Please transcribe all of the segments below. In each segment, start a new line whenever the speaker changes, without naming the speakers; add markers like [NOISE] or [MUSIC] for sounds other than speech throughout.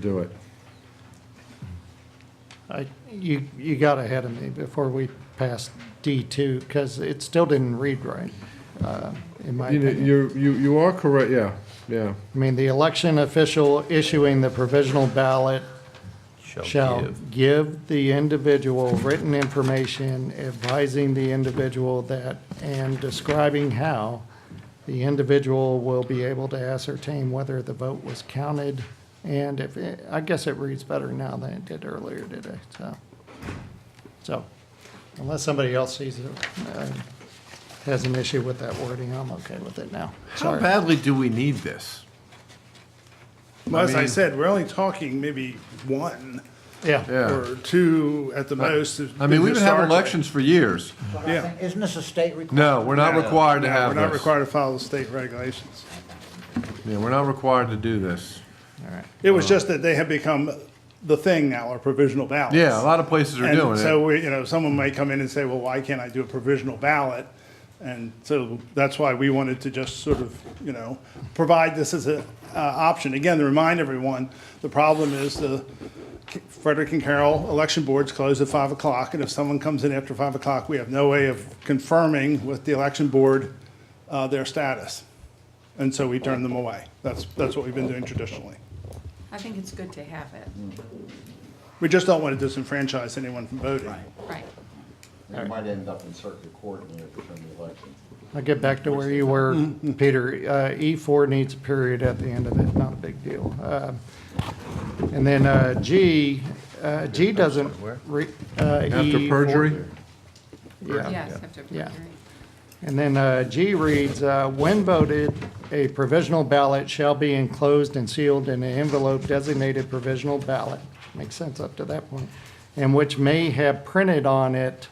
do it.
I- Uh, You, you got ahead of me before we passed D2, because it still didn't read right, uh, in my
You,
opinion.
you, you you are correct, yeah, yeah.
I mean, the election official issuing the provisional ballot shall
Shall
give the individual written information advising the individual that, and describing how the individual will be able to ascertain whether the vote was counted, and if, it- I guess it reads better now than it did earlier today, so. So, unless somebody else sees it, uh, has an issue with that wording, I'm okay with it now.
How
Sorry.
badly do we need this?
Well, as I
mean-
said, we're only talking maybe one
Yeah,
Yeah.
or two at the most.
I mean, we've been having
Historically.
elections for years.
But I
Yeah.
think- Isn't this a state requirement?
No, we're not required to
No,
have
We're not
this.
required to follow the state regulations.
Yeah, we're not required to do this.
It
Uh.
was just that they have become the thing now, our provisional ballots.
Yeah, a lot of places are doing
And so,
it.
we, you know, someone might come in and say, well, why can't I do a provisional ballot? And so that's why we wanted to just sort of, you know, provide this as an option. Again, to remind everyone, the problem is the Frederick and Carroll election boards close at 5 o'clock, and if someone comes in after 5 o'clock, we have no way of confirming with the election board uh, their status. And so we turn them away. That's, that's what we've been doing traditionally.
I think it's good to have it,
We just don't want to disenfranchise anyone from voting.
right.
It might end up in circuit court in the upcoming election.
I'll get back to where you were, Peter. Uh, E4 needs a period at the end of it, not a big deal. Uh, And then uh, G, uh, G doesn't. re- uh,
After
E4
perjury?
Yeah.
Yes, after
Yeah.
preliminary.
And then uh, G reads, uh, when voted, a provisional ballot shall be enclosed and sealed in an envelope designated provisional ballot. Makes sense up to that point. And which may have printed on it.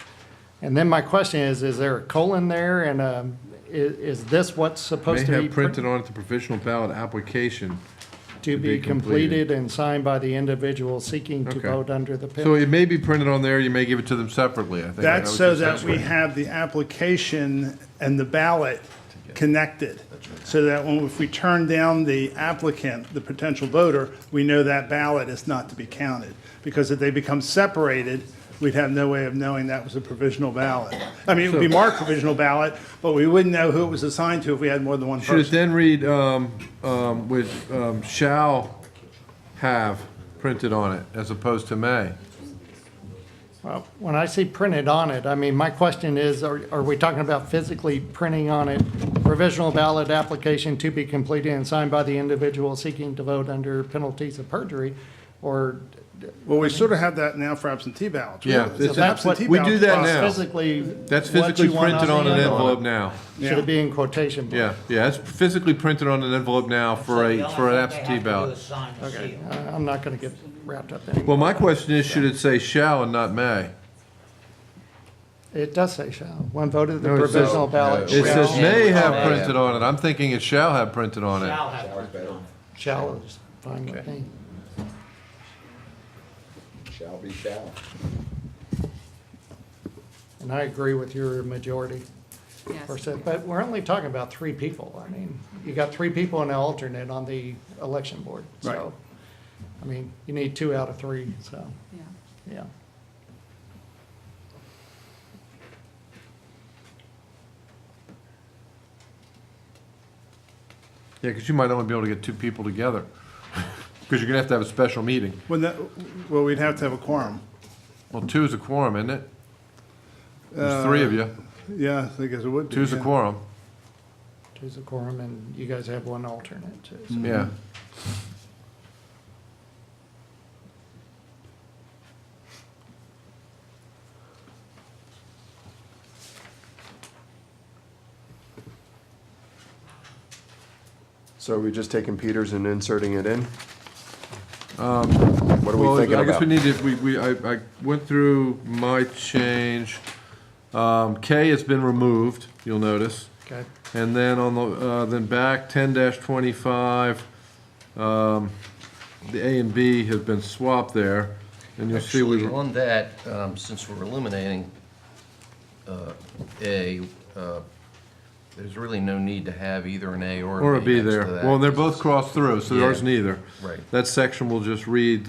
And then my question is, is there a colon there and um, i- is this what's
May
supposed to be?
have
pr-
printed on it the provisional ballot application.
To be completed and signed by the individual seeking to
Okay.
vote under the
So
penalty.
it may be printed on there, you may give it to them separately, I think.
That's
was
so
just
that we
asking.
have the application and the ballot connected. So that when, if we turn down the applicant, the potential voter, we know that ballot is not to be counted. Because if they become separated, we'd have no way of knowing that was a provisional ballot. I mean, it would be marked provisional ballot, but we wouldn't know who it was assigned to if we had more than one
Should it
person.
then read, um, um, with, um, shall have printed on it as opposed to may?
Well, When I see printed on it, I mean, my question is, are, are we talking about physically printing on it provisional ballot application to be completed and signed by the individual seeking to vote under penalties of perjury? Or
Well, we sort of have that now for absentee ballots. We
Yeah,
have-
it's-
it's an
that's what-
absentee
we do
ballot
that
process.
now.
physically?
That's
what
physically
you want
printed on
the
an envelope now.
Should it be in quotation? marks?
Yeah, yeah, it's physically printed on an envelope now for a, for an absentee ballot.
Okay.
I- Uh, I'm not gonna get wrapped up in it.
Well, my question is, should it say shall and not may?
It does say shall. When voted, the
No, it says-
provisional ballot
It says
shall,
may have printed on it, I'm thinking it shall have printed on it.
shall is fine with me.
Shall be shall.
And I agree with your majority.
Yes.
percent, but we're only talking about three people. I mean, you got three people and an alternate on the election board, so. I mean, you need two out of three, so,
Yeah.
yeah.
Yeah, because you might only be able to get two people together, [LAUGHS] because you're gonna have to have a special meeting.
When that, well, we'd have to have a quorum.
Well, two is a quorum, isn't it?
Uh,
There's three of you,
Yeah, I guess it would be.
two's a
yeah.
quorum,
Two's a quorum, and you guys have one alternate, too. so.
Mm-hmm.
yeah.
So are we just taking Peters and inserting it in? Um, What are we
Well,
thinking
I guess we
about?
need to, we, we, I, I went through my change. Um, K has been removed, you'll notice.
Okay,
And then on the, uh, then back ten twenty-five, um, the A and B have been swapped there. And you'll see we,
Actually, on that, um, since we're eliminating uh, A, uh, There's really no need to have either an A or a B.
Or a B
next to
there.
that,
Well, they're
'cause
both crossed through, so there
Yeah.
isn't either.
Right.
That section will just read the